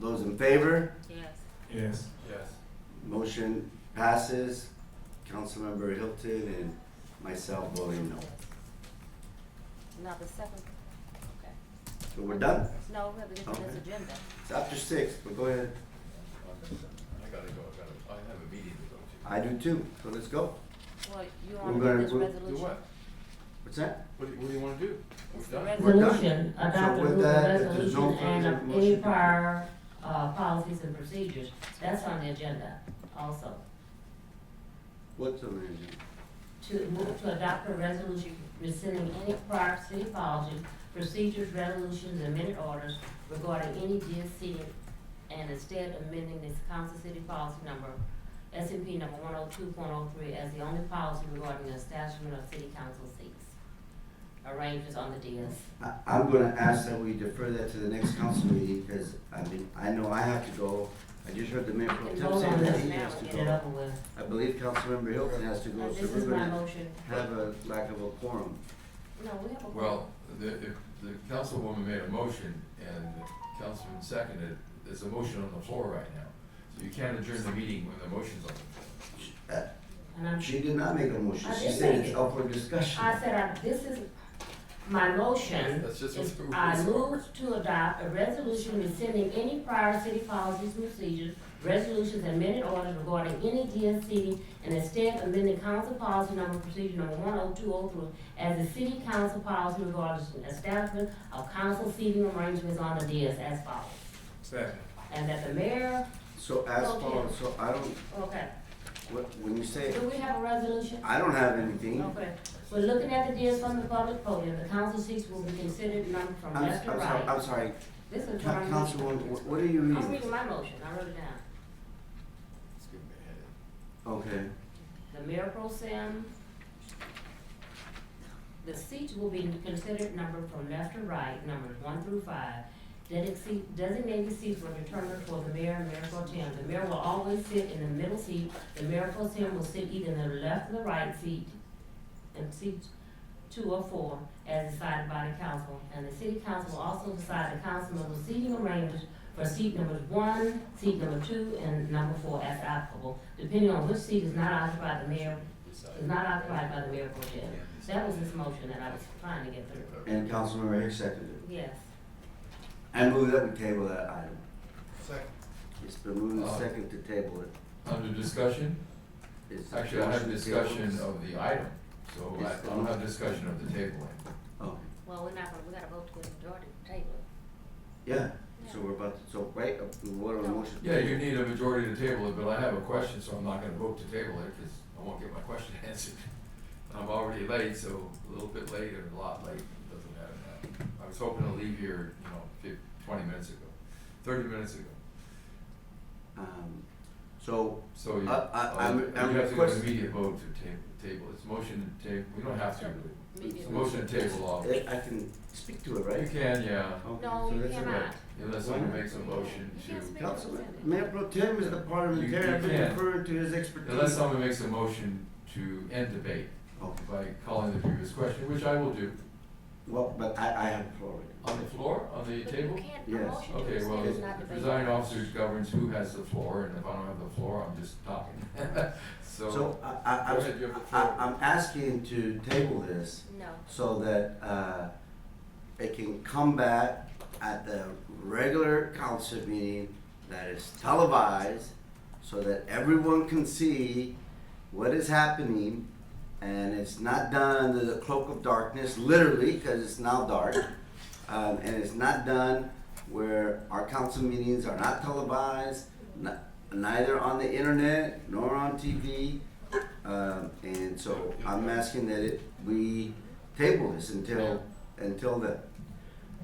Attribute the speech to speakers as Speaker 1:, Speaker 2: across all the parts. Speaker 1: Those in favor?
Speaker 2: Yes.
Speaker 3: Yes.
Speaker 4: Yes.
Speaker 1: Motion passes. Councilmember Hilton and myself voting no.
Speaker 2: Now the second, okay.
Speaker 1: So we're done.
Speaker 2: No, we have to get to this
Speaker 1: Okay.
Speaker 2: agenda.
Speaker 1: It's after six, but go ahead.
Speaker 4: I gotta go, I gotta, I have a meeting to
Speaker 1: I do too, so let's go.
Speaker 2: Well, you
Speaker 1: We're
Speaker 2: want to
Speaker 1: gonna-
Speaker 2: do this
Speaker 1: we're-
Speaker 4: go to. Do
Speaker 2: resolution?
Speaker 4: what?
Speaker 1: What's that?
Speaker 4: What do, what do you wanna do? We're
Speaker 2: It's the
Speaker 4: done.
Speaker 2: resolution.
Speaker 1: We're done.
Speaker 5: Resolution, adopt
Speaker 1: So
Speaker 5: a
Speaker 1: with
Speaker 5: rule of
Speaker 1: that, if there's no
Speaker 5: resolution and
Speaker 1: further
Speaker 5: of any
Speaker 1: motion-
Speaker 5: prior, uh, policies and procedures. That's on the agenda also.
Speaker 1: What's on the agenda?
Speaker 5: To move to adopt a resolution rescinding any prior city policies, procedures, resolutions, and minute orders regarding any dear city and instead amending this council city policy number, S and P number one oh two point oh three as the only policy regarding the establishment of city council seats. Arrangements on the DS.
Speaker 1: I, I'm gonna ask that we defer that to the next council meeting, because I mean, I know I have to go. I just heard the mayor pro
Speaker 5: Can
Speaker 1: tem
Speaker 5: vote on
Speaker 1: saying that
Speaker 5: this
Speaker 1: he
Speaker 5: now
Speaker 1: has to
Speaker 5: and get it
Speaker 1: go.
Speaker 5: over with.
Speaker 1: I believe Councilmember Hilton has to
Speaker 5: Uh,
Speaker 1: go, so
Speaker 5: This
Speaker 1: we're
Speaker 5: is my
Speaker 1: gonna
Speaker 5: motion.
Speaker 1: have a lack of a quorum.
Speaker 5: No, we have a.
Speaker 4: Well, the, if the councilwoman made a motion and the councilman seconded, there's a motion on the floor right now. So you can't adjourn the meeting when the motion's on the floor.
Speaker 1: Uh,
Speaker 5: And I'm,
Speaker 1: She did not make a motion,
Speaker 5: I
Speaker 1: she
Speaker 5: did
Speaker 1: said
Speaker 5: make
Speaker 1: it's
Speaker 5: it.
Speaker 1: up for discussion.
Speaker 5: I said, I, this is, my motion
Speaker 4: That's just
Speaker 5: is,
Speaker 4: what the
Speaker 5: I
Speaker 4: rules
Speaker 5: move to adopt a resolution rescinding any prior city policies, procedures, resolutions, and minute orders regarding any DSC, and instead amending council policy number procedure number one oh two oh three as the city council policy regarding establishment of council seating arrangements on the DS as follows.
Speaker 4: Second.
Speaker 5: And that the mayor,
Speaker 1: So as
Speaker 5: Okay.
Speaker 1: far, so I don't,
Speaker 5: okay,
Speaker 1: what, when you say,
Speaker 5: do we have a resolution?
Speaker 1: I don't have anything.
Speaker 5: Okay, we're looking at the deals from the public podium, the council seats will be considered numbered from
Speaker 1: I'm,
Speaker 5: left
Speaker 1: I'm
Speaker 5: to
Speaker 1: sorry,
Speaker 5: right.
Speaker 1: I'm sorry,
Speaker 5: This
Speaker 1: Coun-
Speaker 5: is what I'm reading.
Speaker 1: Councilwoman, wh- what are you
Speaker 5: I'm reading
Speaker 1: reading?
Speaker 5: my motion, I wrote it down.
Speaker 4: It's giving me a headache.
Speaker 1: Okay,
Speaker 5: The mayor pro tem, the seats will be considered numbered from left to right, numbers one through five. Dedic- seat- Designated seats were determined for the mayor and mayor pro tem. The mayor will always sit in the middle seat, the mayor pro tem will sit either in the left or the right seat, and seat two or four, as decided by the council. And the city council will also decide the council member's seating arrangements for seat numbers one, seat number two, and number four as applicable, depending on which seat is not occupied the mayor, is not occupied by the mayor pro tem. That was his motion that I was trying to get through.
Speaker 1: and Councilmember Hicks seconded it.
Speaker 5: Yes.
Speaker 1: I move that we table that item.
Speaker 4: Second.
Speaker 1: It's been moved and
Speaker 4: Uh,
Speaker 1: second to table it.
Speaker 4: Under discussion,
Speaker 1: It's
Speaker 4: actually, I have
Speaker 1: motion to
Speaker 4: discussion
Speaker 1: table.
Speaker 4: of the item, so I I don't have discussion of the tabling.
Speaker 1: Okay,
Speaker 2: Well, we're not gonna, we gotta vote to majority to table. it.
Speaker 1: yeah, so we're about to, so, right, uh, we vote on the motion.
Speaker 4: Yeah, you need a majority to table it, but I have a question, so I'm not gonna vote to table it, cause I won't get my question answered. I'm already late, so a little bit late or a lot late, doesn't matter now. I was hoping to leave here, you know, fif- twenty minutes ago, thirty minutes ago,
Speaker 1: Um, so,
Speaker 4: so you,
Speaker 1: I- I-
Speaker 4: oh,
Speaker 1: I'm-
Speaker 4: you
Speaker 1: I'm
Speaker 4: have to do an
Speaker 1: request-
Speaker 4: immediate vote to table, table, it's motion to table, we don't have to, really.
Speaker 2: Immediate
Speaker 4: It's a motion to table off. You
Speaker 1: eh, I can speak to it, right?
Speaker 4: can, yeah,
Speaker 1: Okay,
Speaker 2: No,
Speaker 1: so
Speaker 2: you
Speaker 1: that's all right.
Speaker 2: cannot.
Speaker 4: unless someone makes a motion
Speaker 2: You can't
Speaker 4: to,
Speaker 2: speak.
Speaker 1: Councilman, Mayor Pro Tem is the
Speaker 4: You-
Speaker 1: parliamentarian,
Speaker 4: you
Speaker 1: I've been
Speaker 4: can.
Speaker 1: referring to his expertise.
Speaker 4: unless someone makes a motion to end debate
Speaker 1: Okay,
Speaker 4: by calling the previous question, which I will do.
Speaker 1: well, but I, I have the floor already.
Speaker 4: On the floor, on the
Speaker 2: But
Speaker 4: table?
Speaker 2: You can't, a
Speaker 1: Yes.
Speaker 2: motion to
Speaker 4: Okay,
Speaker 2: rescind
Speaker 4: well,
Speaker 2: is not
Speaker 4: the
Speaker 2: debatable.
Speaker 4: presiding officer governs who has the floor, and if I don't have the floor, I'm just talking. So,
Speaker 1: So, I, I, I,
Speaker 4: Go
Speaker 1: was-
Speaker 4: ahead, you have the
Speaker 1: I,
Speaker 4: floor.
Speaker 1: I'm asking to table this
Speaker 2: No,
Speaker 1: so that, uh, it can come back at the regular council meeting that is televised so that everyone can see what is happening and it's not done under the cloak of darkness, literally, because it's now dark. Um, and it's not done where our council meetings are not televised, n- neither on the internet nor on TV. Um, and so I'm asking that it, we table this until, until then.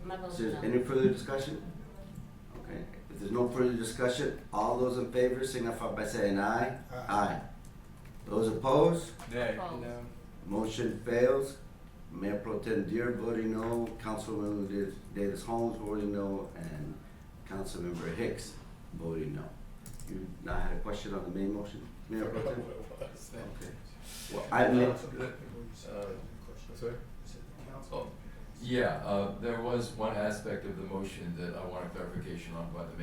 Speaker 5: My
Speaker 1: Is
Speaker 5: motion.
Speaker 1: there any further discussion? Okay, if there's no further discussion, all those in favor signify by saying aye. Aye. Those opposed?
Speaker 4: nay.
Speaker 2: False.
Speaker 1: Motion fails. Mayor Pro Tem Dear voting no, Councilmember Davis- Davis Holmes voting no, and Councilmember Hicks voting no. You now had a question on the main motion, Mayor Pro Tem? Okay. Well, I made,
Speaker 4: Sorry? Yeah, uh, there was one aspect of the motion that I want a clarification on by the mayor.